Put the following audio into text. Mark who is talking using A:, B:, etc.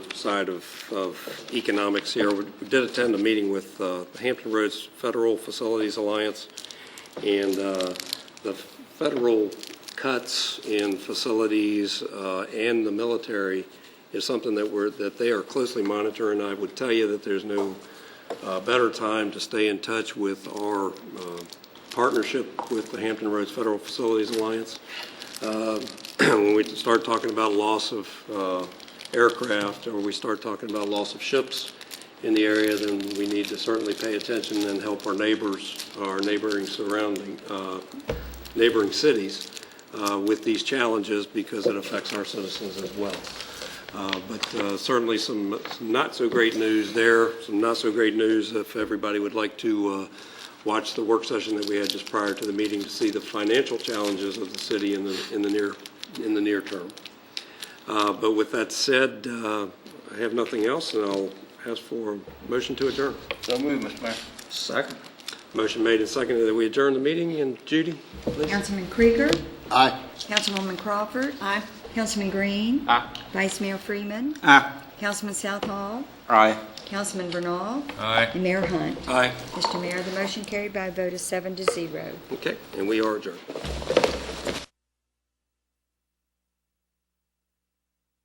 A: side of, of economics here. We did attend a meeting with uh, Hampton Roads Federal Facilities Alliance, and uh, the federal cuts in facilities uh, and the military is something that we're, that they are closely monitoring. I would tell you that there's no uh, better time to stay in touch with our uh, partnership with the Hampton Roads Federal Facilities Alliance when we start talking about loss of uh, aircraft, or we start talking about loss of ships in the area, then we need to certainly pay attention and help our neighbors, our neighboring surrounding, uh, neighboring cities uh, with these challenges because it affects our citizens as well. Uh, But uh, certainly some some not-so-great news there, some not-so-great news if everybody would like to uh, watch the work session that we had just prior to the meeting to see the financial challenges of the city in the, in the near, in the near term. Uh, But with that said, uh, I have nothing else, and I'll ask for a motion to adjourn.
B: So move, Mr. Mayor.
C: Second.
A: Motion made and seconded that we adjourn the meeting, and Judy, please.
D: Councilman Krieger.
B: Aye.
D: Councilwoman Crawford. Aye. Councilman Green.
B: Ah.
C: Aye.
D: Vice Mayor Freeman.
C: Aye.
D: Councilman Southall.
C: Aye.
D: Councilman Bernal.
C: Aye.
D: And Mayor Hunt.
A: Aye.
D: Mr. Mayor, the motion carried by a vote of seven to zero.
A: Okay, and we are adjourned.